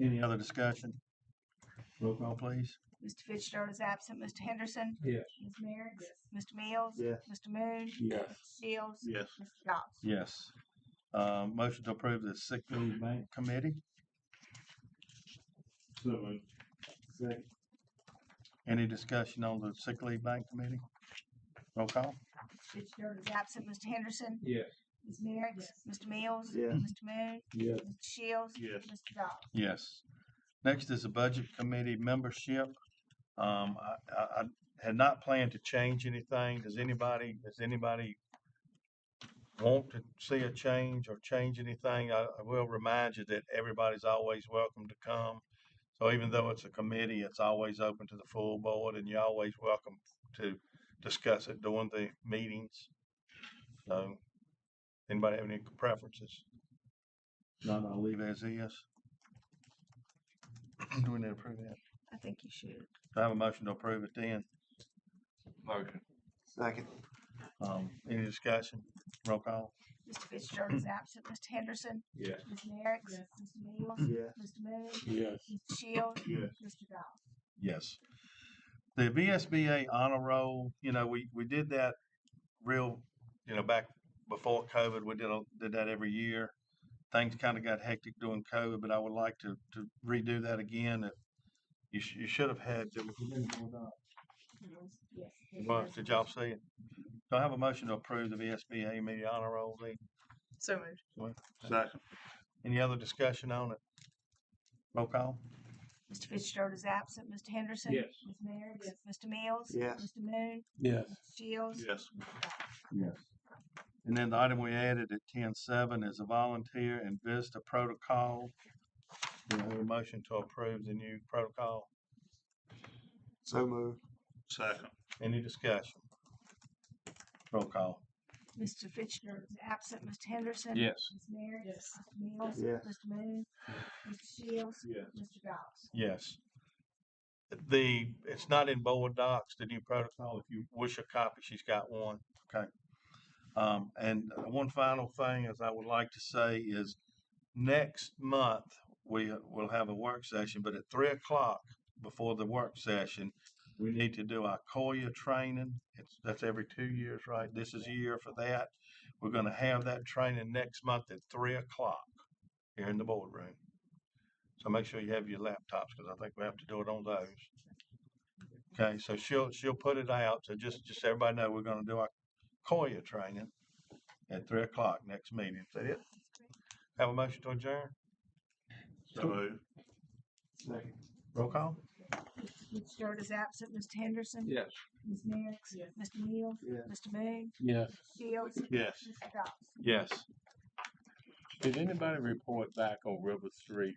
Any other discussion? Roll call, please. Mr. Fitzgerald is absent. Mr. Henderson? Yes. Ms. Merrick? Mr. Mills? Yes. Mr. Moon? Yes. Shields? Yes. Mr. Dobbs? Yes. Um, motion to approve the sick leave bank committee. So moved. Second. Any discussion on the sick leave bank committee? Roll call? Mr. Fitzgerald is absent. Mr. Henderson? Yes. Ms. Merrick? Mr. Mills? Yes. Mr. Moon? Yes. Mr. Shields? Yes. Mr. Dobbs? Yes. Next is the budget committee membership. Um, I, I, I had not planned to change anything. Does anybody, does anybody want to see a change or change anything? I, I will remind you that everybody's always welcome to come. So even though it's a committee, it's always open to the full board and you're always welcome to discuss it during the meetings. So, anybody have any preferences? None, I'll leave as is. Do we need to approve that? I think you should. Do I have a motion to approve it then? Motion. Second. Um, any discussion? Roll call? Mr. Fitzgerald is absent. Mr. Henderson? Yes. Ms. Merrick? Mr. Mills? Yes. Mr. Moon? Yes. Mr. Shields? Yes. Mr. Dobbs? Yes. The VSBA honor roll, you know, we, we did that real, you know, back before COVID, we did, a- did that every year. Things kind of got hectic during COVID, but I would like to, to redo that again. If- You, sh- you should have had, did we- Yes. well, did y'all see it? Do I have a motion to approve the VSBA media honor roll then? So moved. Second. Any other discussion on it? Roll call? Mr. Fitzgerald is absent. Mr. Henderson? Yes. Ms. Merrick? Mr. Mills? Yes. Mr. Moon? Yes. Mr. Shields? Yes. Yes. And then the item we added at ten seven is a volunteer and visitor protocol. Do I have a motion to approve the new protocol? So moved. Second. Any discussion? Roll call. Mr. Fitzgerald is absent. Mr. Henderson? Yes. Ms. Merrick? Mr. Mills? Yes. Mr. Moon? Mr. Shields? Yes. Mr. Dobbs? Yes. The, it's not in board docs, the new protocol. If you wish a copy, she's got one. Okay. Um, and one final thing is I would like to say is next month, we will have a work session, but at three o'clock before the work session, we need to do our COIA training. It's, that's every two years, right? This is a year for that. We're gonna have that training next month at three o'clock here in the boardroom. So make sure you have your laptops, because I think we have to do it on those. Okay, so she'll, she'll put it out, so just, just so everybody know, we're gonna do our COIA training at three o'clock next meeting, is that it? Have a motion to adjourn, So moved. Second. roll call? Mr. Fitzgerald is absent. Mr. Henderson? Yes. Ms. Merrick? Mr. Mills? Yes. Mr. Moon? Yes. Mr. Shields? Yes. Mr. Dobbs? Yes. Did anybody report back on River Street